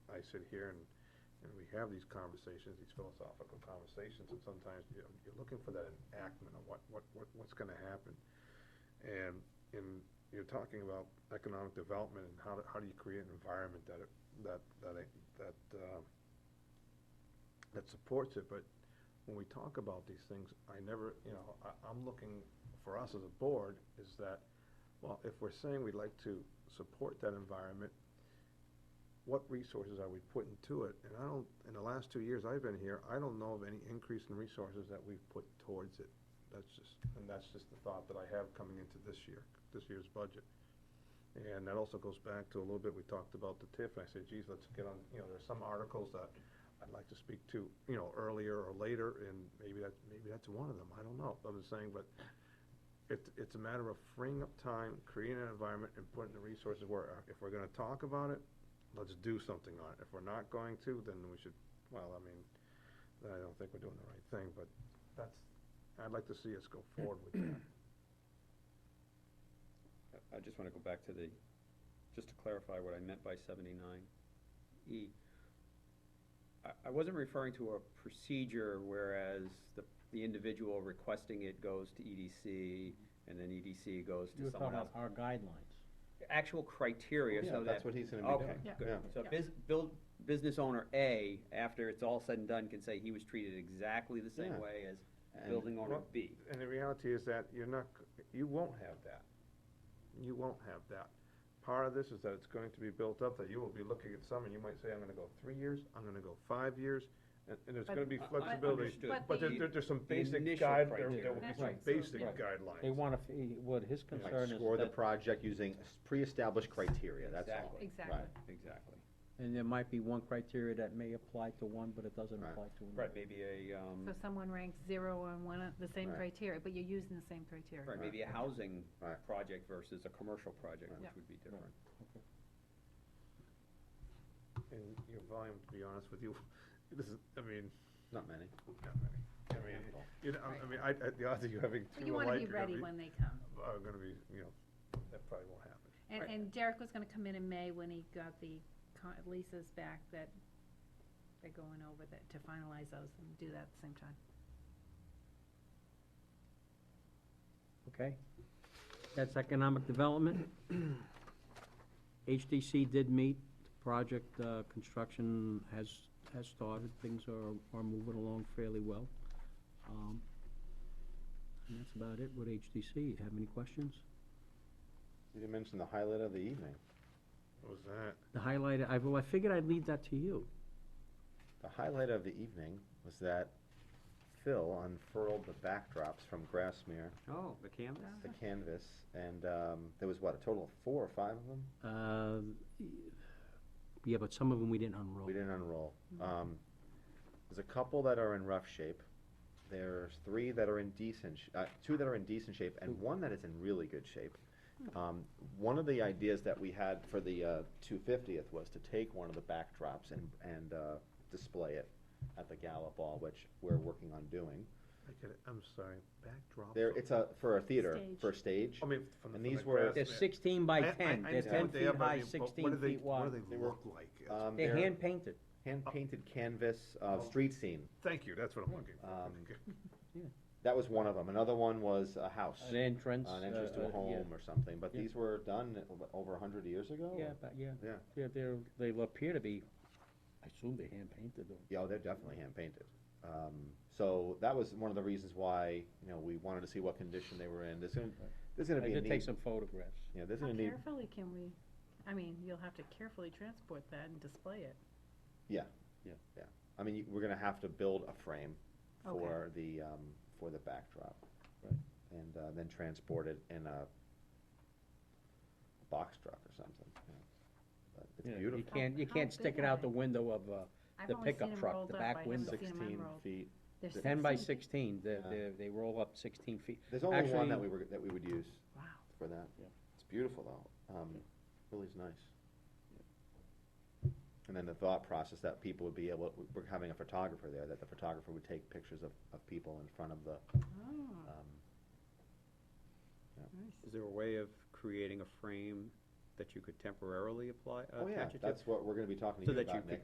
sit here and, and we have these conversations, these philosophical conversations, and sometimes, you know, you're looking for that enactment of what, what, what, what's gonna happen. And, and you're talking about economic development and how, do- how do you create an environment that, it- that, that, it- that, uh, that supports it, but when we talk about these things, I never, you know, I, I'm looking for us as a board is that, well, if we're saying we'd like to support that environment, what resources are we putting to it? And I don't, in the last two years I've been here, I don't know of any increase in resources that we've put towards it. That's just, and that's just the thought that I have coming into this year, this year's budget. And that also goes back to a little bit, we talked about the TIF, and I said, geez, let's get on, you know, there's some articles that I'd like to speak to, you know, earlier or later, and maybe that, maybe that's one of them, I don't know, I'm just saying, but it's, it's a matter of freeing up time, creating an environment, and putting the resources where, if we're gonna talk about it, let's do something on it. If we're not going to, then we should, well, I mean, I don't think we're doing the right thing, but that's, I'd like to see us go forward with that. I- I just want to go back to the, just to clarify what I meant by seventy-nine E. I, I wasn't referring to a procedure whereas the, the individual requesting it goes to EDC and then EDC goes You were to talking someone else. about our guidelines. Actual criteria so that. he's gonna Okay, Yeah. good. Yeah. So Yeah. bus build, business owner A, after it's all said and done, can say he was treated exactly the Yeah. same way as And- building owner Well- B. And the reality is that you're not, c- you won't have that. You won't have that. Part of this is that it's going to be built up, that you will be looking at some, and you might say, I'm gonna go three years, I'm gonna go five years, and, and there's But- gonna be I- I flexibility. understood. But But there, the- there- there's some the basic initial guide, there criteria. there will be That's some right, so- basic Right. guidelines. They want to, what his concern is Score the that, project using s- pre-established criteria, that's all. Exactly. Exactly. Right. Exactly. and there might be one criteria that may apply to one, but it doesn't Right. apply to another. Right, maybe a, um. So someone ranks zero on one of the same Right. criteria, but you're using the same criteria. Right, maybe a housing Right. project versus a commercial project, Yeah. which would be different. And your volume, to be honest with you, this is, I mean, Not many. not many. I mean, you know, I- I mean, I, I, the odds of you having But two you wanna alike be are gonna ready be, when they come. are gonna be, you know, that probably won't happen. And, Right. and Derek was gonna come in in May when he got the con- leases back that they're going over that, to finalize those and do that at the same time. Okay? That's economic development. HDC did meet, the project, uh, construction has, has started, things are, are moving along fairly well. Um, And that's about it with HDC. Have any questions? You didn't mention the highlight of the evening. What was that? The highlight, I, well, I figured I'd leave that to you. The highlight of the evening was that Phil unfurled the backdrops from Grassmere, Oh, the canvas? the Uh-huh. canvas, and, um, there was what, a total of four or five of them? Uh, Yeah, but some of them we didn't unroll. We didn't unroll. Um, there's a couple that are in rough shape. There's three that are in decent, sh- uh, two that are in decent shape, and one that is in really good shape. Um, one of the ideas that we had for the, uh, two fiftieth was to take one of the backdrops and, and, uh, display it at the Gala Ball, which we're working on doing. I get it, I'm sorry, backdrop. There, it's a, for a theater, Stage. for a stage. I mean, from the. and from these the were- grass- They're sixteen by I- I- ten, I they're ten understand what they are, feet but I high, mean, but what sixteen do they- feet What wide. do They they were- look like? It's- Um, They're they're hand-painted. hand-painted canvas, uh, street scene. Thank you, that's what I'm looking for. Um, Okay. That was one of them. Another one was a house. An entrance. an entrance to uh, a uh, home or something, but Yeah. these were done o- over a hundred years ago? Yeah, yeah, but, yeah, Yeah, they're, they're, they appear to be, I assume they're hand-painted though. yeah, oh, they're definitely hand painted. Um, so that was one of the reasons why, you know, we wanted to see what condition they were in. There's gonna, there's gonna I be a did take need, some photographs. yeah, there's How gonna need, carefully can we, I mean, you'll have to carefully transport that and display it. I mean, you- we're gonna have to build a frame Okay. for the, um, for the backdrop. Right. And, uh, then transport it in a box truck or something, you know. But Yeah, it's beautiful. You can't, you How can't big stick it are out they? the window of, uh, I've The only seen pickup 'em truck, rolled the up. back I haven't window. seen 'em Sixteen unrolled. feet. They're ten by 16. sixteen, they're, Yeah. they're, they roll up sixteen feet. There's only one that Actually- we were, that we would use. Wow. for that. Yeah. It's beautiful though, um, really is nice. And then the thought process that people would be able, we're having a photographer there, that the photographer would take pictures of, of people in front of the, Uh-huh. Oh, um, nice. Is there a way of creating a frame that you could temporarily apply, oh yeah, attach it to? Uh, Oh, oh, that's what we're gonna be talking to So you that you about could next